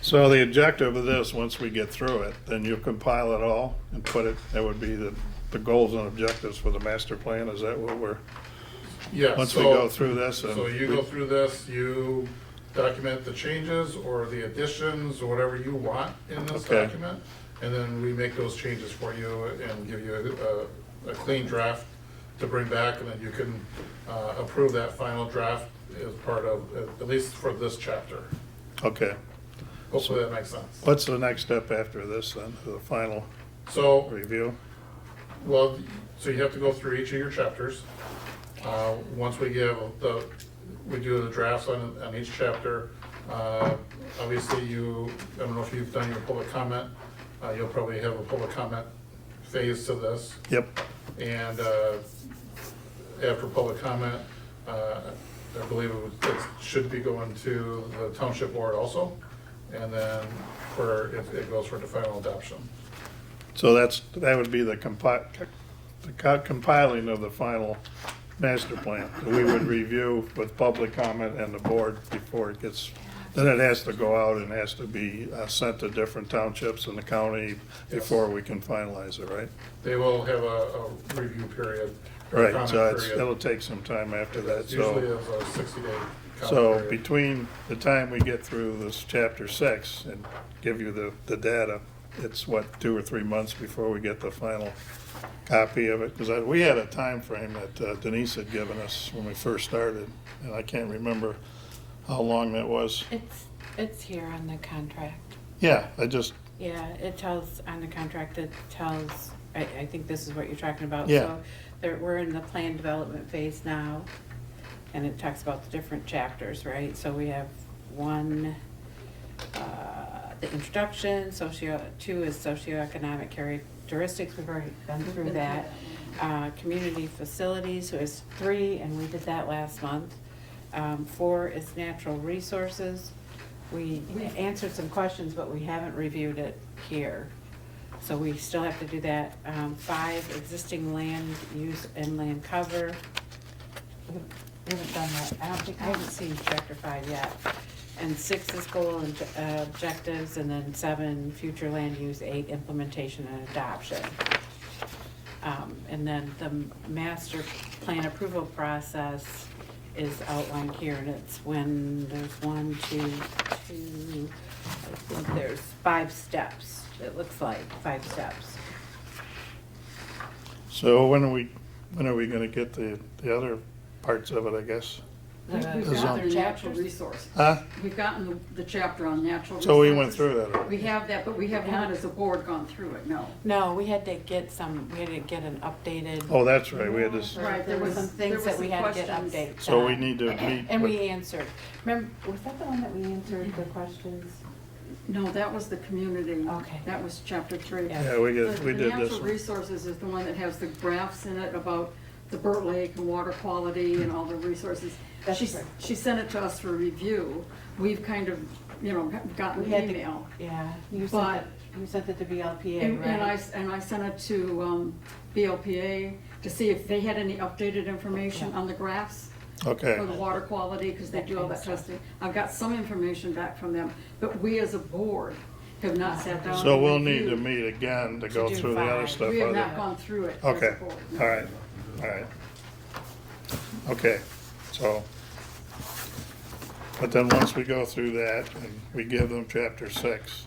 So the objective of this, once we get through it, then you compile it all and put it, that would be the, the goals and objectives for the master plan, is that what we're, Yeah, once we so- go through this? and So you we- go through this, you document the changes or the additions or whatever you want in this Okay. document. And then we make those changes for you and give you a- a, a clean draft to bring back. And then you can uh, approve that final draft as part of, at least for this chapter. Okay, Hopefully that makes sense. what's the next step after this then, the final So review? Well, so you have to go through each of your chapters. Uh, Once we give the, we do the drafts on, on each chapter, uh, obviously you, I don't know if you've done your public comment, uh, you'll probably have a public comment phase to this. Yep, And uh, after public comment, uh, I believe it was- it should be going to the township board also. And then for, it it goes for the final adoption. so that's, that would be the compi, the co- compiling of the final master plan. that We would review with public comment and the board before it gets, then it has to go out and has to be uh, sent to different townships in the county before we can finalize it, right? They will have a, a review period. or a Right, so comment it's, period. it'll take some time after that, It's Usually so. is a sixty-day So comment period. between the time we get through this chapter six and give you the, the data, it's what, two or three months before we get the final copy of it? Because we had a time frame that uh, Denise had given us when we first started, and I can't remember how long that was. It's, it's here on the contract. Yeah, I just, Yeah, it tells, on the contract, it tells, I, I think this is what you're talking about. Yeah. So There, we're in the plan development phase now, and it talks about the different chapters, right? So we have one, uh, the introduction, socio, two is socioeconomic characteristics, we've already been through that. Uh, community facilities, so is three, and we did that last month. Um, four is natural resources. We answered some questions, but we haven't reviewed it here. So we still have to do that. Um, five, existing land use and land cover. We haven't- we haven't done that. I don't think, I haven't seen chapter five yet. And six is goal and uh, objectives, and then seven, future land use, eight, implementation and adoption. Um, and then the master plan approval process is outlined here, and it's when there's one, two, two, I think there's five steps, it looks like, five steps. so when are we, when are we gonna get the, the other parts of it, I guess? We've Uh, we've gotten Zone. the natural resources. Huh? We've gotten the- the chapter on natural resources. So we went through that We already. have that, but we have not as a board gone through it, no. No, we had to get some, we had to get an updated. Oh, that's right, we had this, Right, There there were was- some there things were that we some had to get questions. updated. so we on. need to meet. And with- we answered, remember, was that the one that we answered the questions? No, that was the community. Okay. That was chapter three. Yeah. Yeah, we The did, we the did this natural one. resources is the one that has the graphs in it about the Burt Lake and water quality and all the resources. That's She s- right. She sent it to us for review. We've kind of, you know, gotten We had an to- email. Yeah, you sent it, you sent it to BLPA, And right? and I, s- and I sent it to um, BLPA to see if they had any updated information on the graphs Okay. for the water quality, because they do all that testing. I've got some information back from them, but we as a board have not sat down. So and we'll need to reviewed. meet again to go do through the other five. stuff. We have other- not gone through it as Okay, a board. all right, all right. Okay, so, but then once we go through that and we give them chapter six,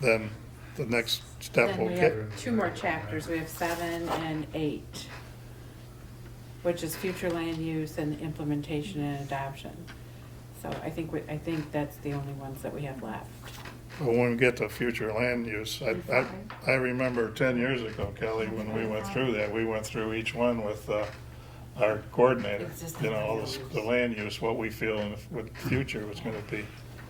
then the next step Then will we get, have two more chapters, we have seven and eight, which is future land use and implementation and adoption. So I think, we- I think that's the only ones that we have left. but when we get to future land use, I, I, I remember ten years ago, Kelly, when we went through that, we went through each one with, uh, our coordinator, you know, all this, the land use, what we feel and what the future was gonna be.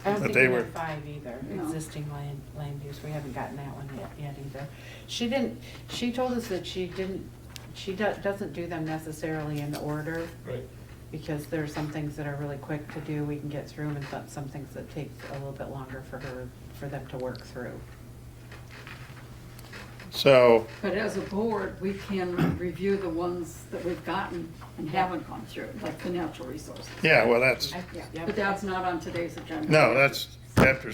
I But don't think they we were- have five either, No. existing land, land use, we haven't gotten that one yet, yet either. She didn't, she told us that she didn't, she do- doesn't do them necessarily in order, Right. because there are some things that are really quick to do, we can get through them, and some- some things that take a little bit longer for her, for them to work through. So, But as a board, we can review the ones that we've gotten and haven't gone through, like the natural resources. yeah, well, that's, I- Yeah, yep. but that's not on today's agenda. no, that's chapter